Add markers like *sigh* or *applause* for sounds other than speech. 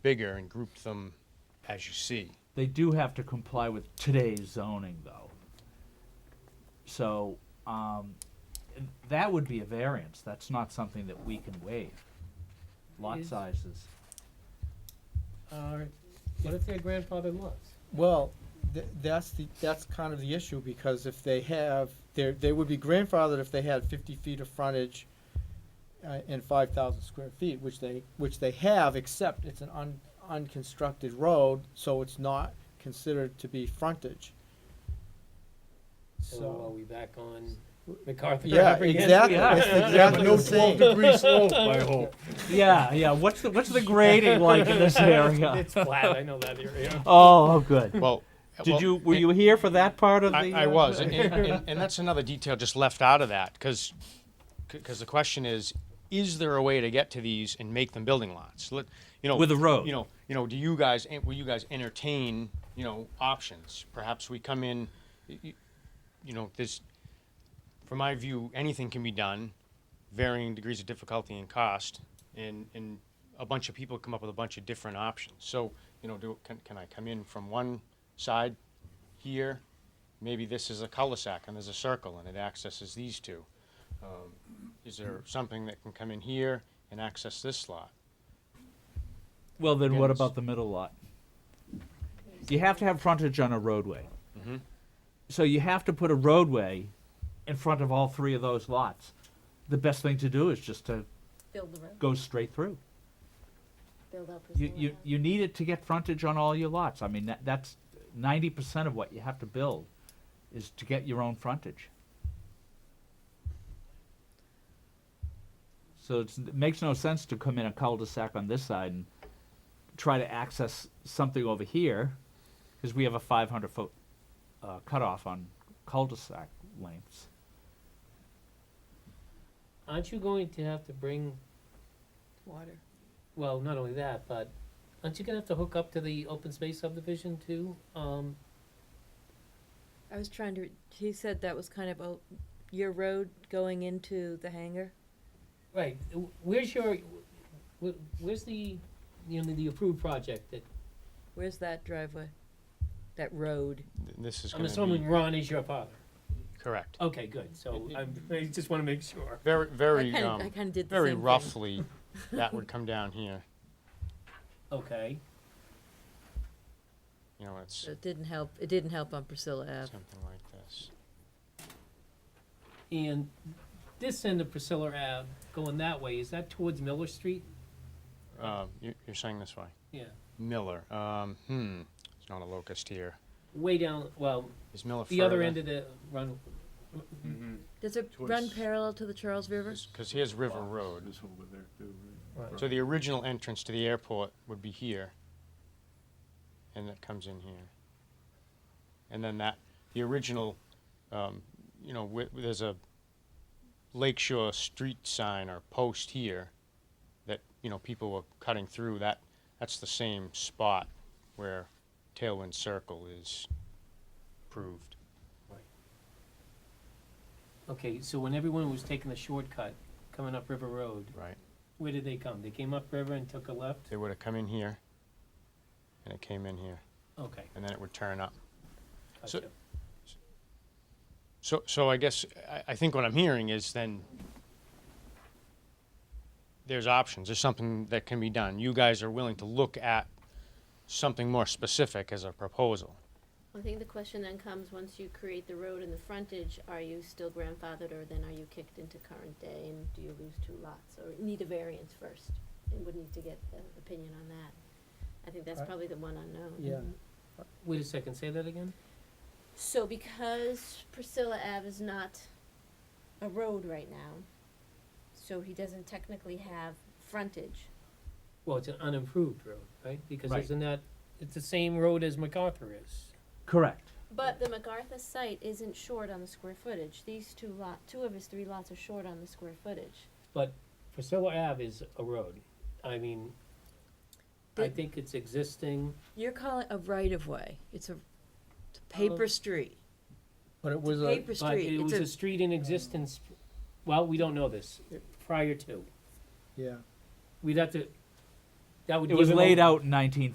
bigger and grouped them as you see. They do have to comply with today's zoning, though. So, um, that would be a variance, that's not something that we can waive. Lot Is- sizes, Or what if they're grandfathered lots? Well, th- that's the, that's kind of the issue, because if they have, they they would be grandfathered if they had fifty feet of frontage uh, and five thousand square feet, which they, which they have, except it's an un- unconstructed road, so it's not considered to be frontage. So are So, we back on MacArthur yeah, Drive again? exactly, *laughs* Yeah. it's Yeah, exactly no the same. 12 degree slope, I hope. yeah, yeah, what's the, what's the grading like in this area? *laughs* It's flat, I know that area. Oh, oh, good. Well, Did well, you, were and- you here for that part of the? I, I uh, *laughs* was, and, and, and that's another detail just left out of that, because the question is, is there a way to get to these and make them building lots? Let, you know, With a road. You know, you know, do you guys en- will you guys entertain you know options? Perhaps we come in, y- y- you know, this. From my view, anything can be done, varying degrees of difficulty and cost, and and a bunch of people come up with a bunch of different options. So you know, do can, can I come in from one side here? Maybe this is a cul-de-sac and there's a circle and it accesses these two. Um, is there something that can come in here and access this lot? Well, then what Yes. about the middle lot? You have to have frontage on a roadway. Mm-hmm. So you have to put a roadway in front of all three of those lots. The best thing to do is just to Build the road, go straight through. build up. You, you, you need it to get frontage on all your lots. I mean, that, that's ninety percent of what you have to build is to get your own frontage. So it's, it makes no sense to come in a cul-de-sac on this side and try to access something over here, because we have a five hundred foot, uh, cutoff on cul-de-sac lengths. Aren't you going to have to bring, Water. well, not only that, but aren't you gonna have to hook up to the open space subdivision too? Um, I was trying to, he said that was kind of a, your road going into the hangar? right, w- where's your, wh- where's the, you know, the approved project that, Where's that driveway? That road? Th- This is I'm going to assuming be Ron is your father. correct. Okay, good, so It- it- I'm, I just wanna make sure. Very, I very, kinda, I um, kinda did the same very thing. *laughs* roughly, that would come down here. Okay, You know, it's So It didn't help, it didn't help on Priscilla Ave. something like this. and this end of Priscilla Ave, going that way, is that towards Miller Street? Um, you- you're saying this way. Yeah, Miller. Um, hmm. It's not a locust here. way down, well, Is Miller the other end of the run, Does it run Towards- parallel to the Charles River? Because here's River Road. This over there too, Right. right? So the original entrance to the airport would be here, and that comes in here. And then that the original, um, you know, wi- there's a Lakeshore street sign or post here that you know people were cutting through. That that's the same spot where Tailwind Circle is proved. okay, so when everyone was taking the shortcut, coming up River Road, Right. where did they come? They came up River and took a left? They would have come in here, and it came in here, Okay, and then it would turn up. So- gotcha. So, so I guess, I, I think what I'm hearing is then there's options, there's something that can be done. You guys are willing to look at something more specific as a proposal. I think the question then comes, once you create the road and the frontage, are you still grandfathered or then are you kicked into current day and do you lose two lots? Or need a variance first and would need to get an opinion on that. I think that's Right. probably the one unknown. Yeah. Wait a second, say that again? So because Priscilla Ave is not a road right now, so he doesn't technically have frontage. Well, it's an unimproved road, right? Because Right. isn't that, it's the same road as MacArthur is. Correct. But the MacArthur site isn't short on the square footage. These two lot, two of his three lots are short on the square footage. But Priscilla Ave is a road. I mean, I Did- think it's existing, You're calling a right-of-way. It's a it's a paper street, But it was a, paper but street. it was a It's street in existence, well, we don't know this, prior to. yeah. We'd have to, that would It give was him a- laid out in nineteen